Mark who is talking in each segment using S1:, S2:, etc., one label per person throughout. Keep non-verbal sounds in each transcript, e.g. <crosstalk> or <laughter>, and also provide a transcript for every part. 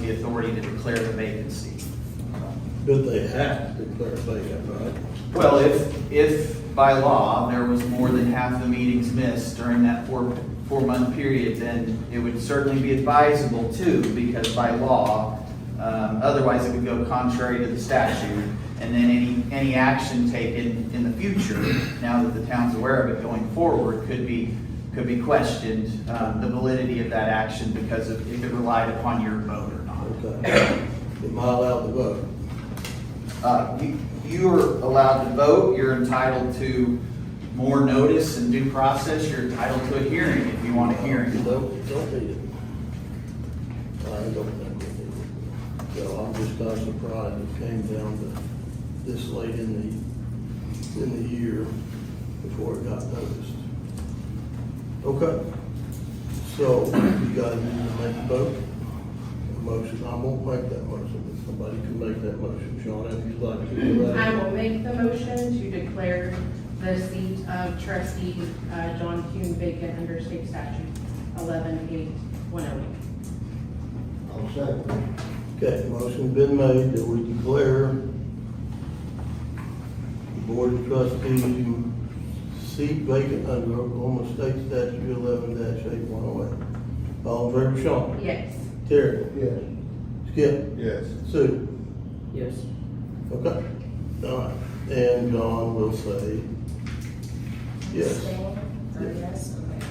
S1: the authority to declare the vacancy.
S2: But they have to declare vacant, right?
S1: Well, if, if by law, there was more than half the meetings missed during that four, four-month period, then it would certainly be advisable too, because by law, um, otherwise it would go contrary to the statute, and then any, any action taken in the future, now that the town's aware of it going forward, could be, could be questioned, um, the validity of that action because of if it relied upon your vote or not.
S2: Okay. Am I allowed to vote?
S1: Uh, you- You're allowed to vote, you're entitled to more notice and due process, you're entitled to a hearing if you want a hearing.
S2: Don't, don't need it. I don't think we need it. So I'm just kind of surprised it came down to this late in the, in the year before it got noticed. Okay. So you guys need to make a vote, a motion. I won't make that motion, but somebody can make that motion. Sean, if you'd like to do that.
S3: I will make the motion to declare the seat of trustee uh, John Kuhn vacant under state statute eleven eight one oh.
S4: I'll second.
S2: Okay, motion's been made that we declare the Board of Trustees seat vacant under Oklahoma State Statute eleven eight one oh eight. All in favor, Sean?
S3: Yes.
S2: Terry?
S4: Yes.
S2: Skip?
S4: Yes.
S2: Sue?
S5: Yes.
S2: Okay, all right, and John will say yes.
S6: Or yes, okay.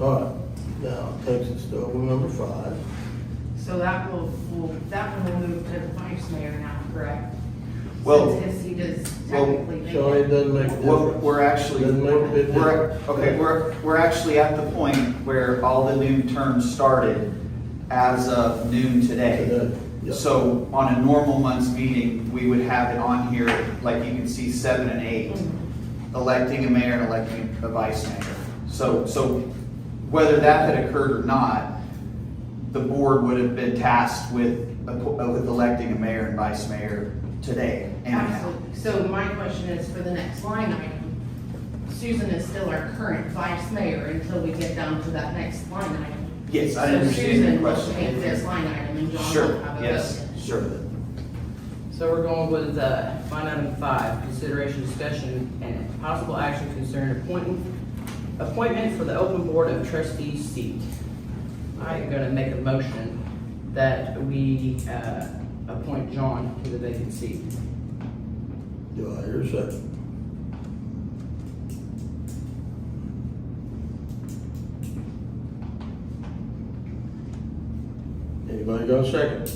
S2: All right, now takes us to over number five.
S3: So that will, will, that one will move to the vice mayor now, correct?
S1: Well-
S3: Since his seat is
S1: Well,
S3: technically
S2: Sean, it
S3: vacant.
S2: doesn't make a
S1: We're
S2: difference.
S1: we're actually,
S2: Doesn't make a big
S1: we're,
S2: difference.
S1: okay, we're, we're actually at the point where all the new terms started as of noon today.
S2: Today, yeah.
S1: So on a normal month's meeting, we would have it on here, like you can see seven and eight,
S3: Mm-hmm.
S1: electing a mayor and electing a vice mayor. So, so whether that had occurred or not, the board would have been tasked with, uh, with electing a mayor and vice mayor today anyhow.
S3: Absolutely. So my question is for the next line item, Susan is still our current vice mayor until we get down to that next line item.
S1: Yes, I
S3: So
S1: understand your
S3: Susan will
S1: question.
S3: Take this line item and John
S1: Sure,
S3: will have a
S1: yes,
S3: vote.
S1: sure.
S5: So we're going with, uh, line item five, consideration, discussion, and possible action concerning appointing, appointment for the open board of trustees seat. I am gonna make a motion that we, uh, appoint John to the vacant seat.
S2: Do I hear a second? Anybody got a second?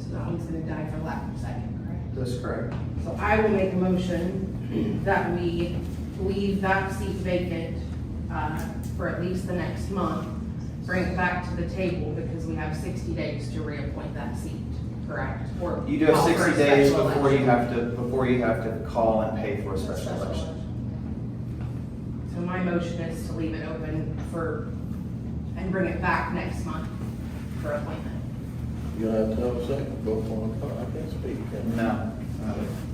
S3: So that one's gonna die for lack of second, correct?
S1: That's correct.
S3: So I will make a motion <clears throat> that we leave that seat vacant, uh, for at least the next month. Bring it back to the table because we have sixty days to reappoint that seat, correct? Or
S1: You do have
S3: call for a
S1: sixty days
S3: special
S1: before you
S3: election.
S1: have to, before you have to call and pay for a special election.
S3: So my motion is to leave it open for, and bring it back next month for appointment.
S2: You gonna have to have a second, go for it. Oh, I can't speak. can I?
S1: No.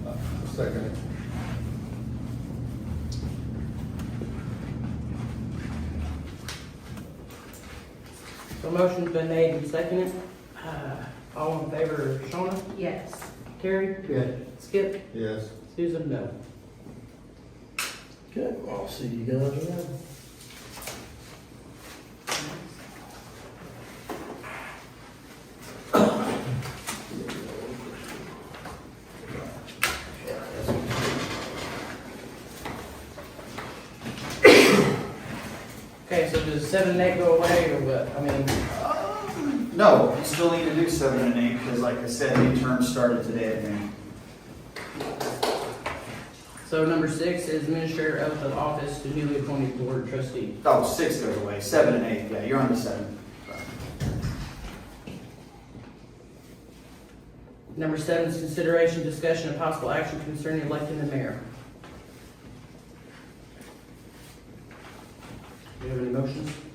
S4: Uh, Second.
S5: So motion's been made and seconded, uh, all in favor, Shawna,
S3: Yes.
S5: Terry,
S4: Yes.
S5: Skip,
S4: Yes.
S5: Susan, no.
S2: Okay, I'll see you guys around.
S5: Okay, so does seven and eight go away or what? I mean,
S1: No, you still need to do seven and eight, because like I said, new term started today, I think.
S5: so number six is administrator oath of office to newly appointed board trustee.
S1: Oh, six goes away, seven and eight, yeah, you're on the seven.
S5: Number seven is consideration, discussion, and possible action concerning electing the mayor. Do you have any motions?